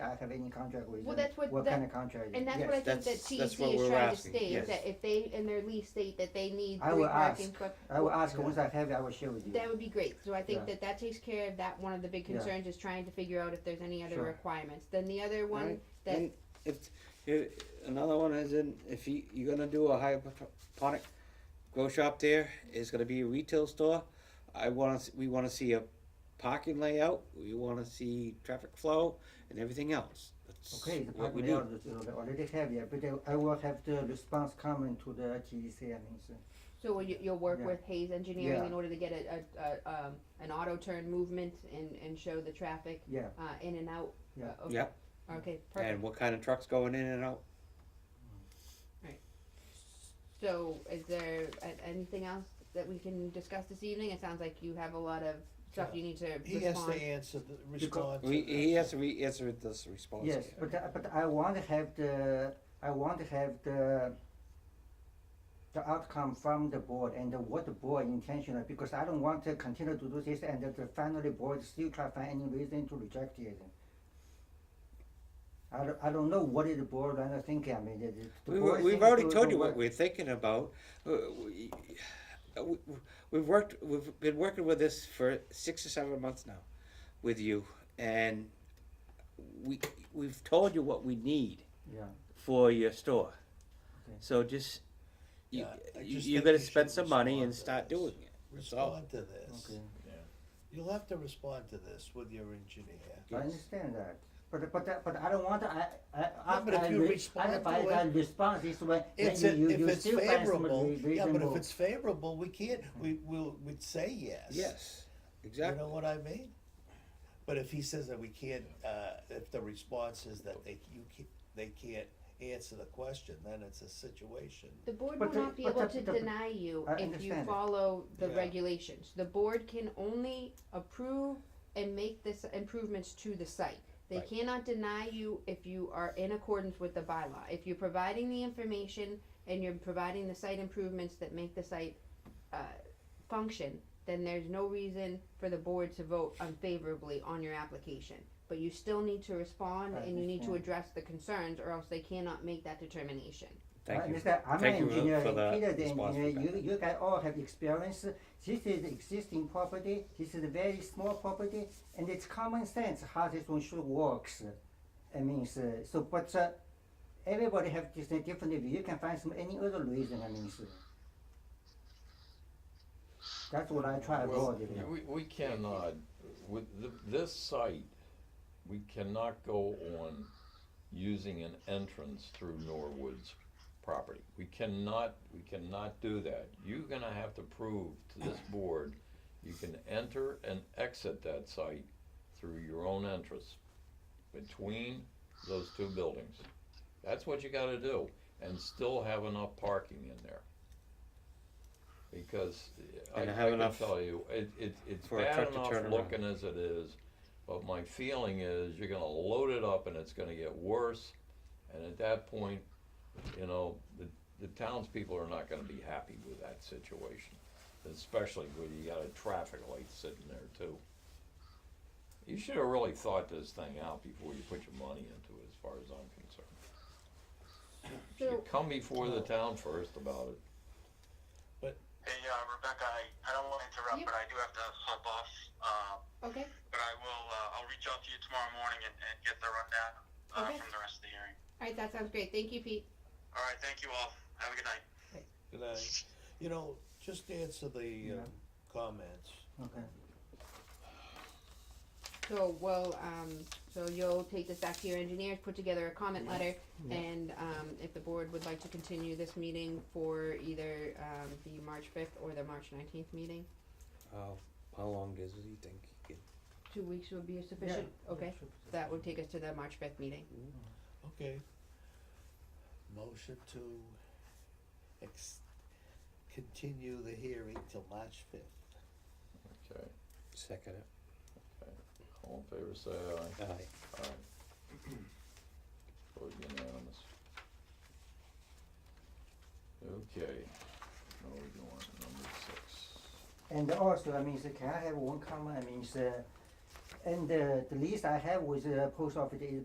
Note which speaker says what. Speaker 1: have any contract with
Speaker 2: Well,
Speaker 1: them,
Speaker 2: that's what
Speaker 1: what
Speaker 2: that-
Speaker 1: kind of contract?
Speaker 2: And that's
Speaker 1: yes.
Speaker 2: what I think that
Speaker 3: That's- that's
Speaker 2: TEC
Speaker 3: what
Speaker 2: is
Speaker 3: we're
Speaker 2: trying to
Speaker 3: asking,
Speaker 2: state,
Speaker 3: yes.
Speaker 2: that if they, in their lease state, that they need
Speaker 1: I
Speaker 2: three
Speaker 1: will
Speaker 2: parking
Speaker 1: ask.
Speaker 2: spots.
Speaker 1: I will ask, once I have it, I will share with you.
Speaker 2: That would be great, so I
Speaker 1: Yeah.
Speaker 2: think that that takes care of that, one of the big
Speaker 1: Yeah.
Speaker 2: concerns is trying to figure out if there's any other
Speaker 1: Sure.
Speaker 2: requirements. Then the other one,
Speaker 3: Right.
Speaker 2: that,
Speaker 3: And if, if another one is in, if you you're gonna do a hydroponic grow shop there, it's gonna be a retail store. I wanna s- we wanna see a parking layout. We wanna see traffic flow and everything else. That's
Speaker 1: Okay, the
Speaker 3: what we
Speaker 1: parking
Speaker 3: do.
Speaker 1: layout is already have it, but I- I will have the response comment to the TEC, I mean, so.
Speaker 2: so you, you'll work
Speaker 1: Yeah.
Speaker 2: with Hayes Engineering in
Speaker 1: Yeah.
Speaker 2: order to get a, a, a, um, an auto turn movement and, and show the traffic,
Speaker 1: yeah,
Speaker 2: uh, in and out?
Speaker 1: Yeah.
Speaker 2: Uh, okay.
Speaker 3: Yep.
Speaker 2: Okay,
Speaker 3: And
Speaker 2: perfect.
Speaker 3: what kind of trucks going in and out?
Speaker 2: So is there a- anything else that we can discuss this evening? It sounds like you have a lot of stuff you need to
Speaker 4: He
Speaker 1: E
Speaker 4: has to
Speaker 2: respond.
Speaker 4: answer the, respond to
Speaker 3: We, he
Speaker 4: that.
Speaker 3: has to re- answer this response.
Speaker 1: yes,
Speaker 3: here.
Speaker 1: but, I- but I want to have the, I want to have the, the outcome from the board and what the board intentional, because I don't want to continue to do this and that the finally board still try to find any reason to reject it. I don't, I don't know what is the board, I don't think, I mean, the- the- the
Speaker 3: We,
Speaker 1: board
Speaker 3: we- we've
Speaker 1: think
Speaker 3: already
Speaker 1: to-
Speaker 3: told
Speaker 1: to
Speaker 3: you
Speaker 1: work.
Speaker 3: what we're thinking about. Uh, we- uh, we- We've worked, we've been working with this for six or seven months now with you. And we, we've told you what we need
Speaker 1: Yeah,
Speaker 3: for your store.
Speaker 1: Okay.
Speaker 3: So just, you,
Speaker 4: Yeah, I just
Speaker 3: you
Speaker 4: think
Speaker 3: gotta
Speaker 4: you should
Speaker 3: spend some money
Speaker 4: respond
Speaker 3: and
Speaker 4: to
Speaker 3: start
Speaker 4: this.
Speaker 3: doing it. That's all.
Speaker 4: Respond to this.
Speaker 1: okay.
Speaker 4: You'll have to respond to this with your engineer.
Speaker 1: I understand that, but, but, but I don't want, to- I, I, after
Speaker 4: but if
Speaker 1: I,
Speaker 4: you
Speaker 1: re-
Speaker 4: respond
Speaker 1: if
Speaker 4: to
Speaker 1: I, if I
Speaker 4: it-
Speaker 1: respond this way, then
Speaker 4: It's, a-
Speaker 1: you, you,
Speaker 4: if
Speaker 1: you
Speaker 4: it's
Speaker 1: still find some
Speaker 4: favorable,
Speaker 1: re- reasonable.
Speaker 4: yeah, but if it's favorable, we can't, we, we'll, we'd say yes.
Speaker 3: Yes,
Speaker 4: You
Speaker 3: exactly.
Speaker 4: know what I mean? But if he says that we can't, uh, if the response is that they, you can't, they can't answer the question, then it's a situation.
Speaker 2: The board
Speaker 1: But
Speaker 2: will
Speaker 1: the-
Speaker 2: not be
Speaker 1: but
Speaker 2: able
Speaker 1: the-
Speaker 2: to
Speaker 1: the-
Speaker 2: deny you
Speaker 1: I
Speaker 2: if you
Speaker 1: understand it.
Speaker 2: follow the
Speaker 4: Yeah.
Speaker 2: regulations. The board can only approve and make this improvements to the site. They
Speaker 3: Right.
Speaker 2: cannot deny you if you are in accordance with the bylaw. If you're providing the information and you're providing the site improvements that make the site uh, function, then there's no reason for the board to vote unfavorably on your application. But you still need to respond
Speaker 1: I
Speaker 2: and you need to
Speaker 1: understand.
Speaker 2: address the concerns, or else they cannot make that determination.
Speaker 3: Thank
Speaker 1: Right,
Speaker 3: you.
Speaker 1: Mr. I'm
Speaker 3: Thank
Speaker 1: an
Speaker 3: you for-
Speaker 1: engineer,
Speaker 3: for
Speaker 1: and
Speaker 3: the
Speaker 1: Peter the
Speaker 3: response
Speaker 1: engineer,
Speaker 3: for
Speaker 1: you,
Speaker 3: that.
Speaker 1: you guys all have experience, this is existing property, this is a very small property, and it's common sense how this one should works. I mean, so, so, but, uh, everybody have this uh, different view, you can find some, any other reason, I mean, so. That's what I try to
Speaker 5: Well,
Speaker 1: avoid, you know.
Speaker 5: we, we cannot, with th- this site, we cannot go on using an entrance through Norwood's property. We cannot, we cannot do that. You're gonna have to prove to this board, you can enter and exit that site through your own entrance between those two buildings. That's what you gotta do, and still have enough parking in there. Because uh, I, I
Speaker 3: And have
Speaker 5: can
Speaker 3: enough
Speaker 5: tell you, it, it, it's
Speaker 3: for a
Speaker 5: bad
Speaker 3: truck to
Speaker 5: enough
Speaker 3: turn around.
Speaker 5: looking as it is, but my feeling is you're gonna load it up and it's gonna get worse. And at that point, you know, the, the townspeople are not gonna be happy with that situation, especially when you got a traffic light sitting there too. You should have really thought this thing out before you put your money into it, as far as I'm concerned. You
Speaker 2: So-
Speaker 5: should come before the town first about it.
Speaker 6: Hey, uh, Rebecca, I, I don't want to interrupt,
Speaker 2: Yep.
Speaker 6: but I do have to hop off. Um,
Speaker 2: Okay.
Speaker 6: but I will, uh, I'll reach out to you tomorrow morning and, and get the rundown uh,
Speaker 2: Okay.
Speaker 6: from the rest of the hearing.
Speaker 2: All right, that sounds great. Thank you, Pete.
Speaker 6: All right, thank you all. Have a good night.
Speaker 4: Can I, you know, just answer the,
Speaker 1: Yeah.
Speaker 4: um, comments.
Speaker 1: Okay,
Speaker 2: So, well, um, so you'll take this back to your engineers, put together a comment letter, and, um, if the board would like to continue this meeting for either, um, the March fifth or the March nineteenth meeting,
Speaker 3: How, how long does he think he can?
Speaker 2: two weeks would be sufficient? Okay, that would take us to the March fifth meeting.
Speaker 4: Okay. Motion to ex- continue the hearing till March fifth.
Speaker 5: Okay,
Speaker 3: Second it.
Speaker 5: all in favor, say aye.
Speaker 4: uh,
Speaker 3: Aye.
Speaker 5: Aye. Vote unanimous. Okay, now we're going to number six.
Speaker 1: And also, I mean, so can I have one comment, I mean, so, and uh, the lease I have with the post office is